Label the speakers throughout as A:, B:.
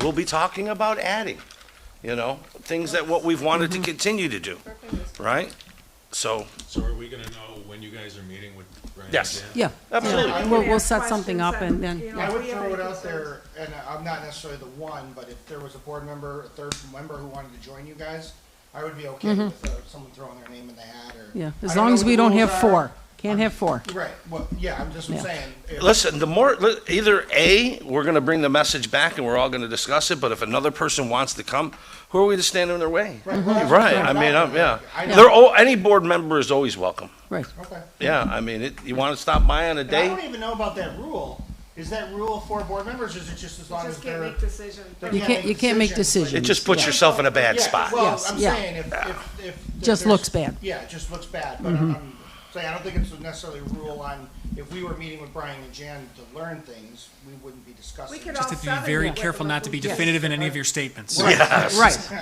A: we'll be talking about adding, you know, things that what we've wanted to continue to do, right? So,
B: So are we gonna know when you guys are meeting with Brian? and
A: Yes.
B: Jan?
C: Yeah,
A: absolutely.
C: we'll, we'll
D: ask
C: set something up
D: questions
C: and then,
D: that, you know,
C: yeah.
E: I would
D: we have
E: throw it
D: any
E: out there, and uh, I'm not necessarily the one, but if there was a board member, a third member who wanted to join you guys, I would be okay with uh, someone throwing their name in the hat or.
C: Mm-hmm. yeah,
E: I
C: as
E: don't
C: long
E: know
C: as
E: what
C: we
E: the
C: don't
E: rules
C: have
E: are.
C: four. Can't have four.
E: Right, well, yeah, I'm just
C: Yeah.
E: saying, if-
A: Listen, the more, li- either A, we're gonna bring the message back and we're all gonna discuss it, but if another person wants to come, who are we to stand in their way?
C: Mm-hmm.
E: Right, well, that's
A: Right,
E: what
A: I
E: I'm
A: mean,
E: about.
A: I'm, yeah.
E: I know.
A: They're, all- any board member is always welcome.
C: Right.
E: okay.
A: Yeah, I mean, it, you wanna stop by on a
E: And I don't
A: day?
E: even know about that rule. Is that rule for board members, or is it just as long as
D: Just can't
E: they're?
D: make decisions.
E: they
C: You can't, you can't make
A: It
C: decisions.
A: just puts
C: Yeah.
A: yourself in a bad
E: Yeah,
A: spot.
E: Well,
C: Yes,
E: I'm
C: yeah.
E: saying if, if, if. if
C: Just
E: there's-
C: looks bad. Mm-hmm.
E: Yeah, it just looks bad, but I'm I'm saying, I don't think it's necessarily a rule on, if we were meeting with Brian and Jan to learn things, we wouldn't be discussing.
D: We could
E: it.
D: all
F: Just have to
D: seven
F: be very
D: with the
F: careful not to be
D: local-
F: definitive in any of your statements.
C: Right.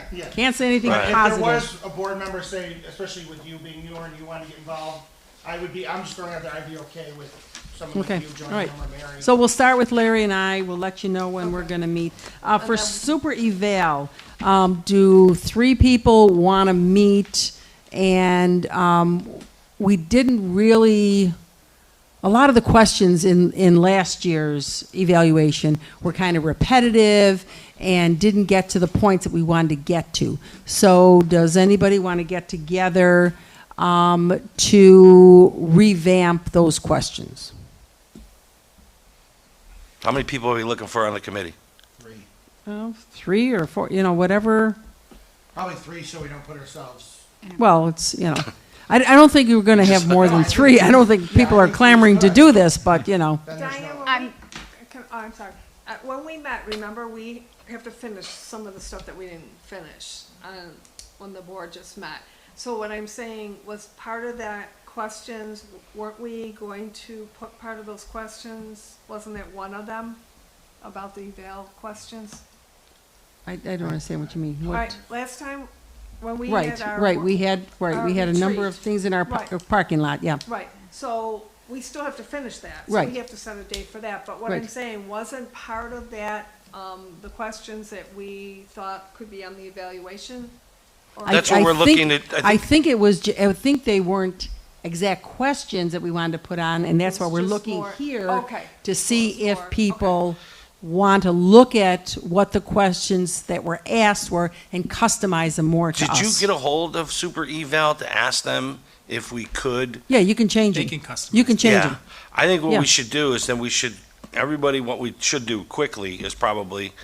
E: Yeah.
C: Can't say anything
A: Right.
E: If there
C: positive.
E: was a board member, say, especially with you being newer and you want to get involved, I would be, I'm just throwing out there, I'd be okay with someone like
C: Okay,
E: you
C: all
E: joining
C: right.
E: them or Mary.
C: So we'll start with Larry and I. We'll let you know when we're gonna meet. Uh, for super eval, um, do three people wanna meet? And, um, we didn't really, a lot of the questions in, in last year's evaluation were kind of repetitive and didn't get to the points that we wanted to get to. So does anybody want to get together, um, to revamp those questions?
A: How many people are we looking for on the committee?
E: Three.
C: Oh, three or four, you know, whatever.
E: Probably three, so we don't put ourselves.
C: Well, it's, you know, I, I don't think you were going to have more than three. I don't think people
E: I
C: are
E: think
C: clamoring to
E: three's
C: do this, but, you know,
E: Then there's
D: Diana,
E: no.
D: when we, can- oh, I'm sorry. Uh, When we met, remember, we have to finish some of the stuff that we didn't finish um, when the board just met. So what I'm saying was part of that questions, weren't we going to put part of those questions? Wasn't it one of them about the eval questions?
C: I, I don't understand what you mean. What-
D: Right, last time when we
C: Right,
D: had our.
C: right, we had, right,
D: our
C: we had a number of
D: retreat.
C: things in our par-
D: Right.
C: parking lot, yeah.
D: Right, so we still have to finish that. So
C: Right.
D: we have to set a date for that, but what I'm
C: Right.
D: saying, wasn't part of that, um, the questions that we thought could be on the evaluation? Or-
C: I-
A: That's what
C: I
A: we're
C: think-
A: looking at. I
C: I think it was, ju- I think they weren't exact questions that we wanted to put on, and that's why
D: It's
C: we're
D: just
C: looking
D: more-
C: here
D: okay.
C: to see
D: It's more-
C: if
D: okay.
C: people want to look at what the questions that were asked were and customize them more to
A: Did
C: us.
A: you get a hold of Super Eval to ask them if we could?
C: Yeah, you can change
F: They
C: it.
F: can customize
C: You can change
A: Yeah.
C: it.
A: I think what
C: Yeah.
A: we should do is then we should, everybody, what we should do quickly is probably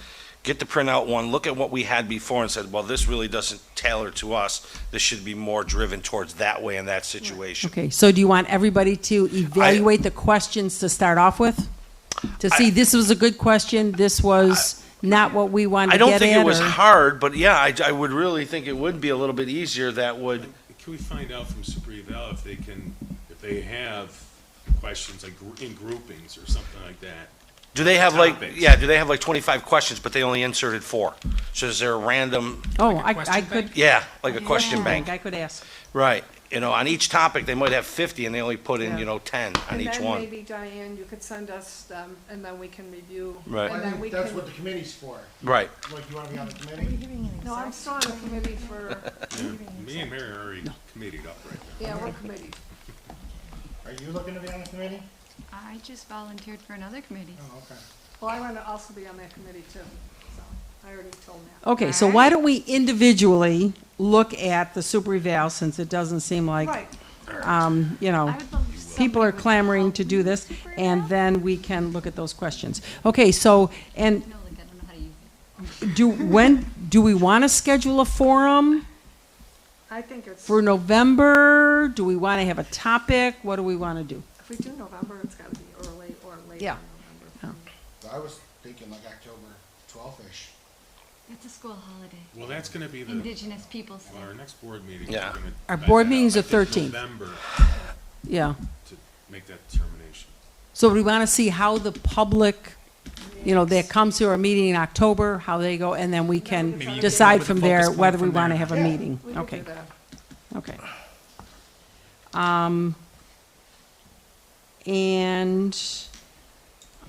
A: get the printout one, look at what we had before and said, well, this really doesn't tailor to us. This should be more driven towards that way in that situation.
C: Okay, so do you want everybody to evaluate the questions to start off with? To see, this was a good question, this was not what we wanted
A: I
C: to get at?
A: don't think it was
C: or-
A: hard, but yeah, I, I would really think it would be a little bit easier that would,
B: Can we find out from Super Eval if they can, if they have questions like gr- in groupings or something like that?
A: do they have like,
B: Topics.
A: yeah, do they have like twenty-five questions, but they only inserted four? So is there a random,
C: Oh, I, I
F: question
C: could.
A: yeah, like a question
C: Yeah,
A: bank?
C: I could ask.
A: Right. You know, on each topic, they might have 50 and they only put in,
D: Yeah.
A: you know, 10 on each
D: And then
A: one.
D: maybe Diane, you could send us them, and then we can review.
A: Right.
E: I
D: And then we
E: think that's
D: can,
E: what the committee's for.
A: Right.
E: Like, you wanna be on the committee?
D: no, I'm still on the committee for,
B: Me and Mary are already committed up right now.
D: yeah, we're committee.
E: Are you looking to be on the committee?
G: I just volunteered for another committee.
E: Oh, okay.
D: Well, I want to also be on that committee too, so I already told Matt.
C: Okay, so why don't we individually look at the super eval, since it doesn't seem like,
D: Right,
C: um, you know,
G: I would love if somebody
C: people are
G: would
C: clamoring
G: help
C: to do
G: me
C: this,
G: super
C: and
G: eval.
C: then we can look at those questions. Okay, so, and
G: No, like, I don't know how to use it.
C: do, when, do we want to schedule a forum
D: I think it's,
C: for
D: if
C: November? Do we want to have a topic? What do we want to do?
D: we do November, it's got to be early or late in
C: Yeah.
D: November.
E: So I was thinking like October twelfth-ish.
G: It's a school holiday.
B: Well, that's gonna be the,
G: Indigenous peoples.
B: well, our
G: Day.
B: next board meeting.
A: Yeah.
B: we're gonna
C: Our
B: find
C: board
B: that out.
C: meeting's
B: I
C: the
B: think
C: 13th.
B: November
C: Yeah.
B: to make that determination.
C: So we want to see how the public, you know, that comes to our meeting in October, how they go, and then we
D: Maybe you
C: can
D: can
C: decide
F: put a
C: from
F: focus
C: there
F: point
C: whether we
F: from
C: want to
F: there.
C: have a
E: Yeah.
C: meeting.
D: We could
C: Okay,
D: do that.
C: okay. Um, and,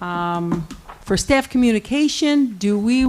C: um, for staff communication, do we